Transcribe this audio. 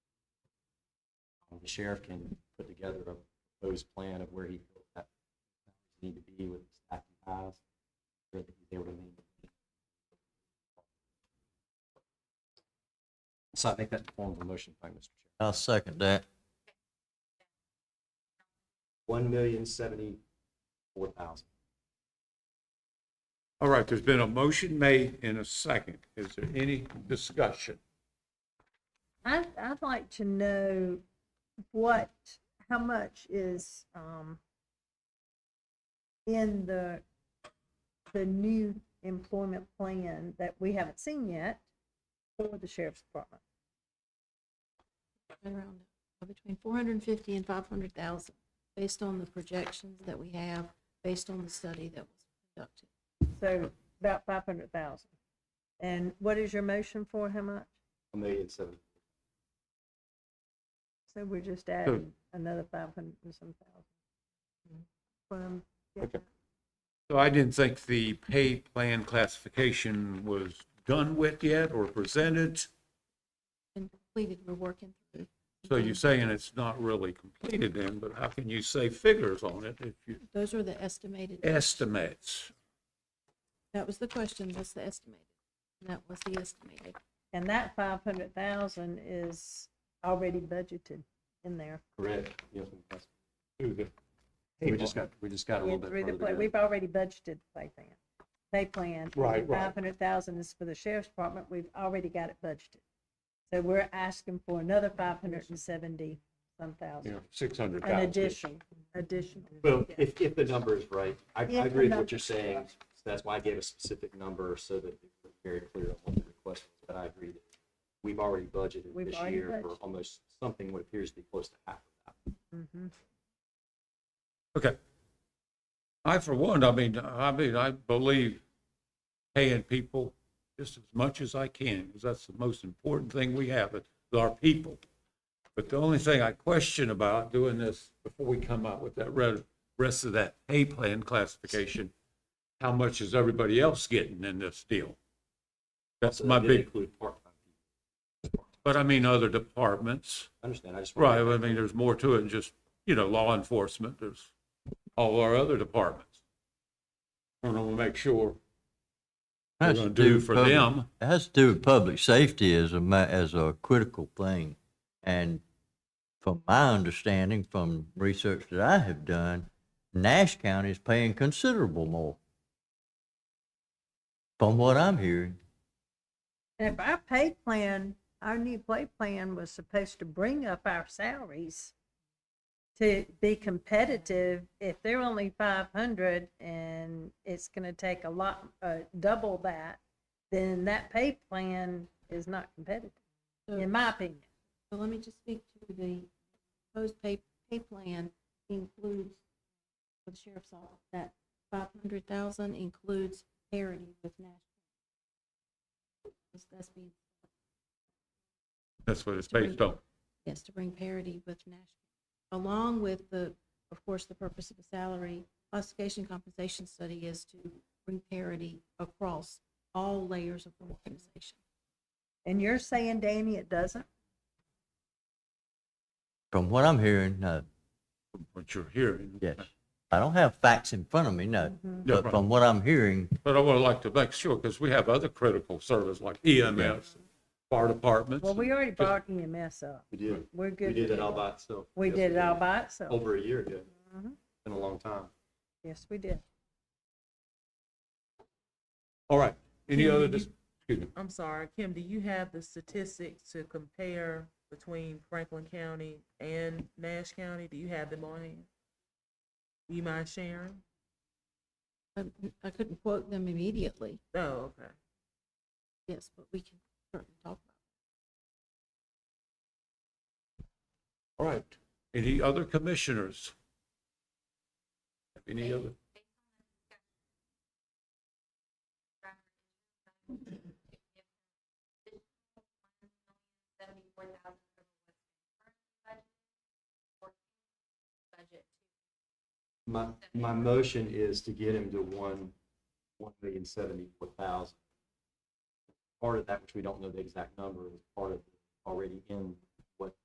the sheriff can put together a proposed plan of where he feels that need to be with staff and eyes, where he's able to meet. So I think that's the form of a motion, if I may, Mr. Chair. I'll second that. One million seventy-four thousand. All right, there's been a motion made in a second. Is there any discussion? I'd, I'd like to know what, how much is, um, in the, the new employment plan that we haven't seen yet for the sheriff's department. been around uh, between four hundred and fifty and five hundred thousand, based on the projections that we have, based on the study that was conducted. So about five hundred thousand. And what is your motion for how much? A million seventy. So we're just adding another five hundred and some thousand. Okay. So I didn't think the pay plan classification was done with yet or presented. And completed, we're working through. So you're saying it's not really completed then, but how can you say figures on it if you Those are the estimated, estimates? that was the question, what's the estimated? And that was the estimated. And that five hundred thousand is already budgeted in there. Correct. Yes, Mr. President. through the We just got, we just got a Yeah, little bit through the further. pla- to go. We've already budgeted pay plan, pay plan. Right, right. Five hundred thousand is for the sheriff's department, we've already got it budgeted. So we're asking for another five hundred and seventy some You thousand, know, six hundred an thousand. addition, additional. Well, if, if the number is right, I, If I the agree with number- what you're saying. So That's why I gave a specific number so that it was very clear on what the request was, but I agree that we've already budgeted We've this already year for budgeted. almost something what appears to be close to half of that. Mhm. Okay. I, for one, I mean, I mean, I believe paying people just as much as I can, because that's the most important thing we have, is our people. But the only thing I question about doing this before we come out with that red, rest of that pay plan classification, how much is everybody else getting in this deal? That's So that my didn't big, Include part-time people. but I mean, other departments. I understand, I just. Right, wanted- I mean, there's more to it than just, you know, law enforcement, there's all our other departments. And I want to make sure we're Has gonna to do with for public- them. It has to do with public safety as a, ma- as a critical thing. And from my understanding, from research that I have done, Nash County is paying considerable more. From what I'm hearing. And if our pay plan, our new pay plan was supposed to bring up our salaries to be competitive, if they're only five hundred and it's gonna take a lot, uh, double that, then that pay plan is not competitive, So- in my opinion. So let me just speak to the proposed pay, pay plan includes, for the sheriff's office, that five hundred thousand includes parity with national. That's- That's being, That's what it's based on. yes, to bring parity with national, along with the, of course, the purpose of the salary classification compensation study is to bring parity across all layers of the organization. And you're saying, Danny, it doesn't? From what I'm hearing, no, What you're hearing. yes. I don't have facts in front of me, no. Yeah, But right. from what I'm hearing, But I would like to make sure, because we have other critical service like EMS, fire departments. Well, we already Just- brought EMS up. We did, We're good. we did with it all by Oh. itself. We Yes, did it all by itself. Over a year ago, Mhm. been a long time. Yes, we did. All right, any Kim, other, do you- dis- excuse me, I'm sorry, Kim, do you have the statistics to compare between Franklin County and Nash County? Do you have them on hand? Do you mind sharing? Um, I couldn't quote them immediately, Oh, okay. yes, but we can certainly talk about it. all right, any other commissioners? Any other? My, my motion is to get him to one, one million seventy-four thousand. Part of that, which we don't know the exact number, is part of already in